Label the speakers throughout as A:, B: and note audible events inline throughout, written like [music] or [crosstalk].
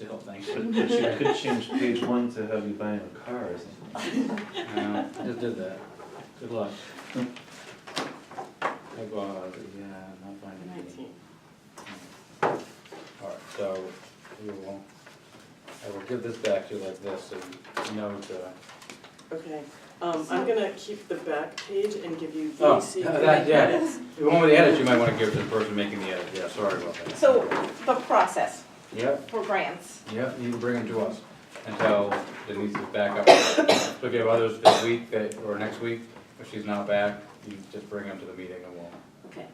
A: I don't think.
B: But but you could change page one to have you buying a car or something.
A: No, [laughs] Just did that. Good luck. I go, uh, yeah, I'm not finding it.
C: Nineteen.
A: All right, so we will, I will give this back to you like this, so you know uh, the.
C: Okay, um, I'm gonna keep the back page and give you
A: Oh,
C: the
A: [laughs]
C: secret
A: that, yeah.
C: edits.
A: The one with the edits, you might wanna give to the person making the edit, yeah, sorry about that.
D: So the process
A: Yep,
D: for grants,
A: yep, you can bring them to us and tell Denise to back up. So if you have others this week, that- or next week, if she's not back, you just bring them to the meeting and we'll.
D: okay,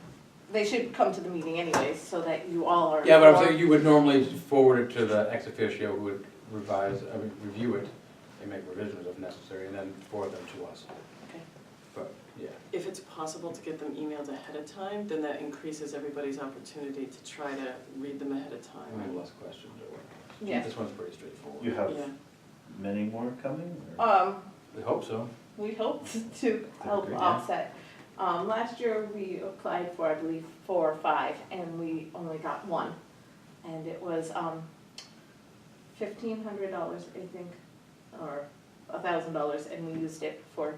D: they should come to the meeting anyways, so that you all are.
A: Yeah, but I'm saying you would normally forward it to the ex officio who would revise, I mean, review it and make revisions if necessary, and then forward them to us.
D: Okay.
A: But, yeah,
C: If it's possible to get them emailed ahead of time, then that increases everybody's opportunity to try to read them ahead of
A: I have
C: time.
A: less questions or whatever.
D: Yeah.
A: This one's pretty
B: You
A: straightforward.
B: have
C: Yeah,
B: many more coming? or-
D: Um,
A: We hope so.
D: we hope [laughs] to help
A: Yeah.
D: offset. Um, last year, we applied for, I believe, four or five, and we only got one. And it was, um, fifteen hundred dollars, I think, or a thousand dollars, and we used it for,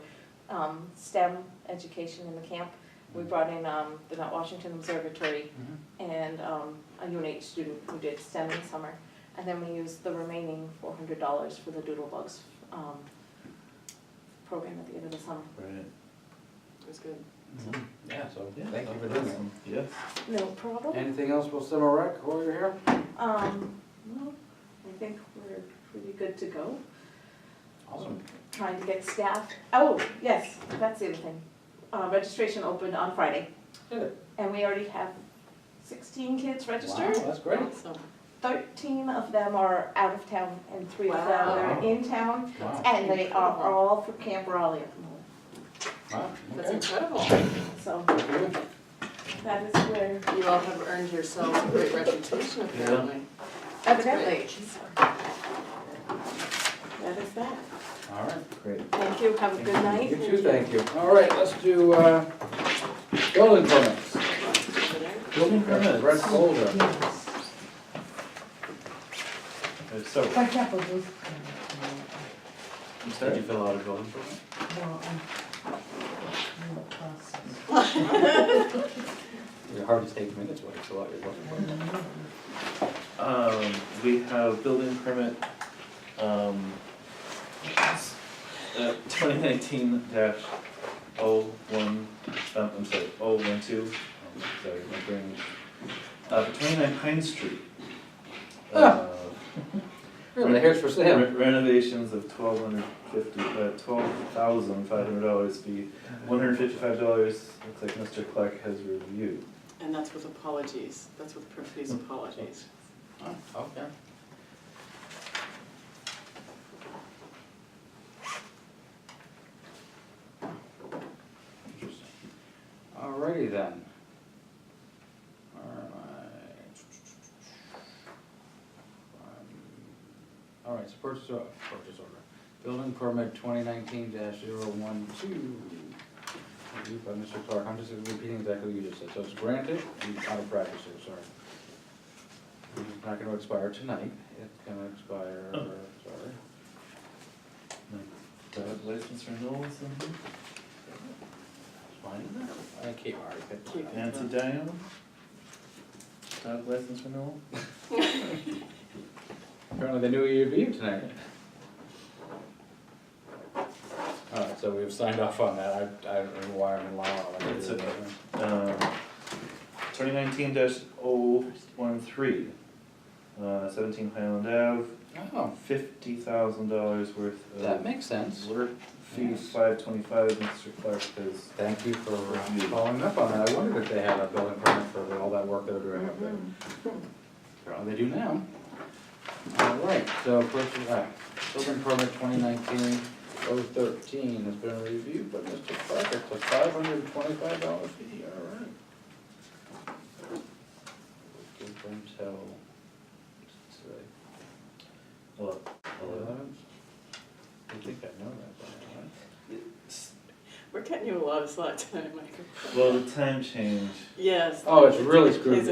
D: um, STEM education in the camp. We brought in, um, the Mount Washington Observatory
A: Mhm.
D: and um, a UNH student who did STEM in summer. And then we used the remaining four hundred dollars for the Doodlebugs um, program at the end of the summer.
B: Right.
C: it was good.
A: Mhm. Yeah, so,
B: Yeah,
A: thank you for doing
B: awesome. Yes.
D: No
A: that.
D: problem.
A: Anything else with Summer Rec while you're here?
D: Um, no, I think we're pretty good to go.
A: Awesome.
D: Trying to get staff. Oh, yes, that's the other thing. Uh, registration opened on Friday,
A: Did it?
D: and we already have sixteen kids
A: Wow,
D: registered.
A: that's great.
C: So,
D: Thirteen of them are out of town, and three of them
A: Wow.
D: are in town.
A: Wow,
D: And they are all for Camp Raleigh at the moment.
A: wow,
C: that's
A: okay.
C: incredible.
D: So
A: Good.
D: that is where
C: You all have earned yourselves a great reputation apparently.
D: evidently. That is that.
A: All right.
B: Great.
D: Thank you, have a good
A: You
D: night.
A: too, thank you. All right, let's do, uh, building permits.
B: Building
A: Brett
B: permits.
A: Holder.
B: Uh, So,
E: For example, those,
B: you said you fill out a building permit?
E: uh, well, um, I'm, i process.
A: It's hard to take minutes when it's a lot you're looking for.
B: Um, we have building permit, um, uh, twenty nineteen dash oh one, um, I'm sorry, oh one two, um, sorry, my brain. Uh, twenty-nine Pine Street.
A: Ah.
B: Uh,
A: Really, here's for sale.
B: Re- Renovations of twelve hundred fifty, uh, twelve thousand five hundred dollars be one hundred fifty-five dollars, looks like Mr. Clark has reviewed.
C: And that's with apologies, that's with profuse apologies.
A: Okay. Interesting. Alrighty then. Alright. Um, Alright, so purchase, or- purchase order, building permit twenty nineteen 12 Reviewed by Mr. Clark, I'm just repeating exactly what you just said, so it's granted and out of practice here, sorry. It's not gonna expire tonight, it's gonna expire,
B: Oh.
A: sorry.
B: Do I have License renewals in here?
A: Fine. I keep already. picked
C: Keep
A: it up.
B: Nancy Diane? Dog license renewal?
A: Apparently they knew you'd be here tonight. Alright, so we've signed off on that, I, I don't know why I'm in law. I didn't
B: It's
A: do that.
B: okay. Um, twenty nineteen dash oh one three, uh, seventeen Highland Ave,
A: Oh,
B: fifty thousand dollars worth of.
A: that makes sense.
B: Alert fee
A: Yes.
B: five twenty-five, Mr. Clark has
A: Thank you for uh,
B: Review.
A: following up on that, I wondered if they had a building permit for all that work they were doing up there. Apparently they do now. Alright, so purchase, uh, building permit twenty nineteen oh thirteen has been reviewed by Mr. Clark, it's a five hundred and twenty-five dollar fee, alright. Give them till, what's it say?
B: Well, hello.
A: Eleven? I think I know that, by now, right?
C: We're cutting you a lot of slack tonight, Michael.
B: Well, the time change
C: Yes.
A: Oh, it's really screwed
C: Is